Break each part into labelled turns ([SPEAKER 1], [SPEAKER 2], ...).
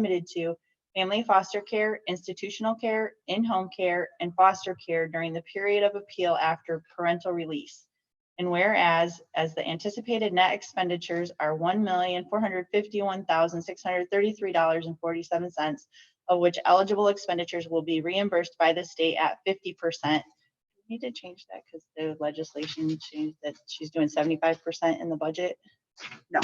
[SPEAKER 1] limited to family foster care, institutional care, in-home care, and foster care during the period of appeal after parental release. And whereas, as the anticipated net expenditures are one million, four hundred fifty-one thousand, six hundred thirty-three dollars and forty-seven cents, of which eligible expenditures will be reimbursed by the state at fifty percent. Need to change that because the legislation changed that she's doing seventy-five percent in the budget.
[SPEAKER 2] No.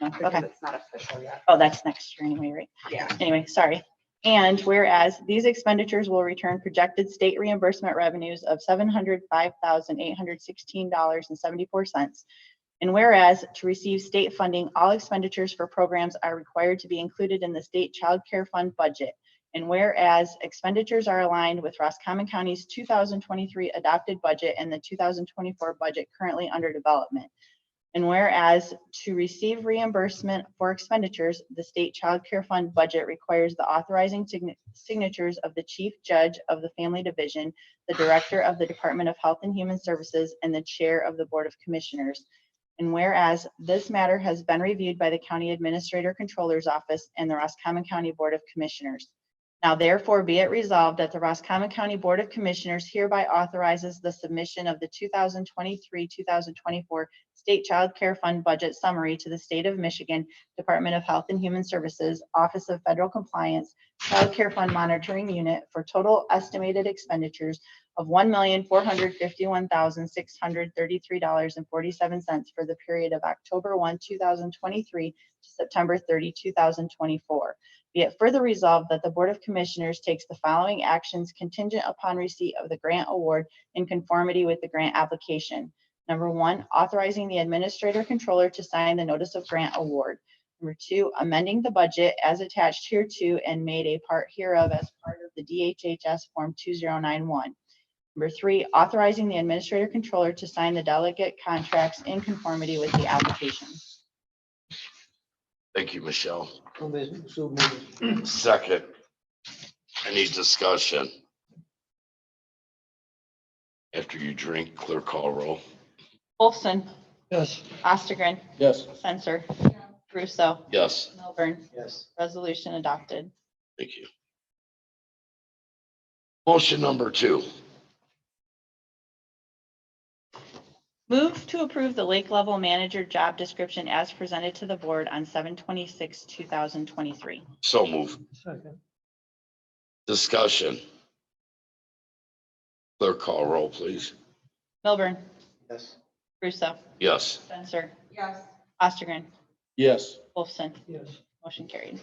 [SPEAKER 1] No,
[SPEAKER 2] because
[SPEAKER 1] okay.
[SPEAKER 2] it's not official yet.
[SPEAKER 1] Oh, that's next year anyway, right?
[SPEAKER 2] Yeah.
[SPEAKER 1] anyway, sorry. And whereas these expenditures will return projected state reimbursement revenues of seven hundred five thousand eight hundred sixteen dollars and seventy-four cents. And whereas to receive state funding, all expenditures for programs are required to be included in the state child care fund budget. And whereas expenditures are aligned with Roscommon County's two thousand twenty-three adopted budget and the two thousand twenty-four budget currently under development. And whereas to receive reimbursement for expenditures, the state child care fund budget requires the authorizing sign- signatures of the chief judge of the family division, the director of the Department of Health and Human Services, and the chair of the Board of Commissioners. And whereas this matter has been reviewed by the county administrator controller's office and the Roscommon County Board of Commissioners. Now therefore be it resolved that the Roscommon County Board of Commissioners hereby authorizes the submission of the two thousand twenty-three, two thousand twenty-four State Child Care Fund Budget Summary to the State of Michigan Department of Health and Human Services, Office of Federal Compliance, Child Care Fund Monitoring Unit for total estimated expenditures of one million, four hundred fifty-one thousand, six hundred thirty-three dollars and forty-seven cents for the period of October one, two thousand twenty-three to September 30, 2024. Be it further resolved that the Board of Commissioners takes the following actions contingent upon receipt of the grant award in conformity with the grant application. Number one, authorizing the administrator controller to sign the notice of grant award. Number two, amending the budget as attached hereto and made a part hereof as part of the DHHS Form 2091. Number three, authorizing the administrator controller to sign the delegate contracts in conformity with the application.
[SPEAKER 3] Thank you, Michelle.
[SPEAKER 4] So moved, so moved.
[SPEAKER 3] Second. Any discussion? After you drink, clear call roll.
[SPEAKER 1] Olson,
[SPEAKER 4] Yes.
[SPEAKER 1] Ostergren,
[SPEAKER 4] Yes.
[SPEAKER 1] Censor, Russo,
[SPEAKER 3] Yes,
[SPEAKER 1] Milburn,
[SPEAKER 4] Yes.
[SPEAKER 1] resolution adopted.
[SPEAKER 3] thank you. Motion number two.
[SPEAKER 1] Move to approve the lake level manager job description as presented to the board on seven twenty-six, two thousand twenty-three.
[SPEAKER 3] So move.
[SPEAKER 4] Second.
[SPEAKER 3] Discussion. Clear call roll, please.
[SPEAKER 1] Milburn,
[SPEAKER 4] Yes.
[SPEAKER 1] Russo,
[SPEAKER 3] Yes.
[SPEAKER 1] Spencer,
[SPEAKER 2] Yes,
[SPEAKER 1] Ostergren,
[SPEAKER 4] Yes.
[SPEAKER 1] Wolfson,
[SPEAKER 4] Yes.
[SPEAKER 1] motion carried.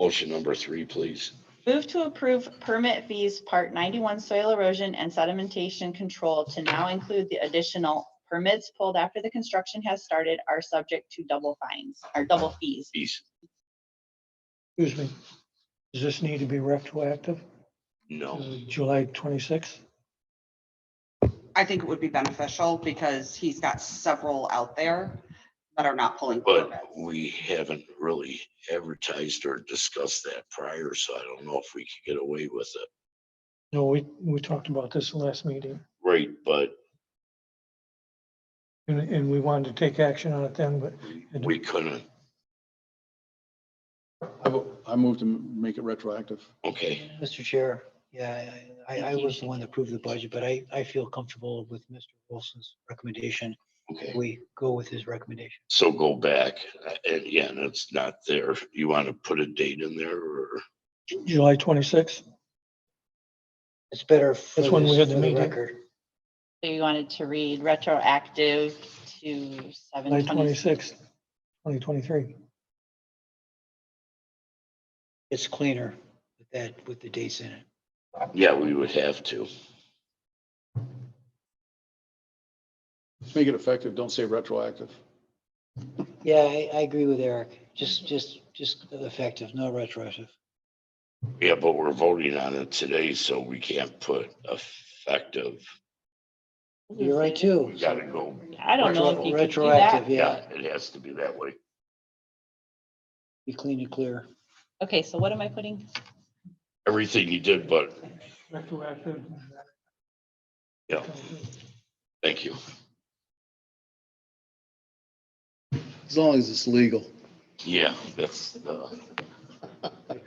[SPEAKER 3] Motion number three, please.
[SPEAKER 1] Move to approve permit fees, part ninety-one soil erosion and sedimentation control to now include the additional permits pulled after the construction has started are subject to double fines, or double fees.
[SPEAKER 3] Please.
[SPEAKER 5] Excuse me, does this need to be retroactive?
[SPEAKER 3] No.
[SPEAKER 5] Is it July twenty-sixth?
[SPEAKER 2] I think it would be beneficial because he's got several out there that are not pulling
[SPEAKER 3] But
[SPEAKER 2] permits.
[SPEAKER 3] we haven't really advertised or discussed that prior, so I don't know if we could get away with it.
[SPEAKER 5] No, we, we talked about this last meeting,
[SPEAKER 3] Right, but
[SPEAKER 5] and, and we wanted to take action on it then, but
[SPEAKER 3] we couldn't.
[SPEAKER 6] I vo- I move to m- make it retroactive.
[SPEAKER 3] Okay,
[SPEAKER 4] Mr. Chair,
[SPEAKER 7] Yeah, I, I I was the one that approved the budget, but I, I feel comfortable with Mr. Wilson's recommendation.
[SPEAKER 3] okay.
[SPEAKER 7] We go with his recommendation.
[SPEAKER 3] So go back uh, and yeah, and it's not there. You want to put a date in there or?
[SPEAKER 5] Ju- July twenty-sixth,
[SPEAKER 7] It's better for
[SPEAKER 5] That's when we
[SPEAKER 7] this-
[SPEAKER 5] had the
[SPEAKER 7] for the
[SPEAKER 5] meeting.
[SPEAKER 7] record.
[SPEAKER 1] So you wanted to read retroactive to
[SPEAKER 5] July
[SPEAKER 1] seven twenty-six.
[SPEAKER 5] twenty-sixth, twenty twenty-three.
[SPEAKER 7] It's cleaner with that, with the dates in it.
[SPEAKER 3] Yeah, we would have to.
[SPEAKER 6] Just make it effective. Don't say retroactive.
[SPEAKER 7] Yeah, I, I agree with Eric. Just, just, just effective, no retroactive.
[SPEAKER 3] Yeah, but we're voting on it today, so we can't put effective.
[SPEAKER 7] You're right too.
[SPEAKER 3] We gotta go.
[SPEAKER 1] I don't know if you could do that.
[SPEAKER 7] Retroactive, yeah,
[SPEAKER 3] It has to be that way.
[SPEAKER 7] be clean and clear.
[SPEAKER 1] Okay, so what am I putting?
[SPEAKER 3] Everything you did, but
[SPEAKER 5] Retroactive.
[SPEAKER 3] yeah, thank you.
[SPEAKER 6] As long as it's legal.
[SPEAKER 3] Yeah, that's the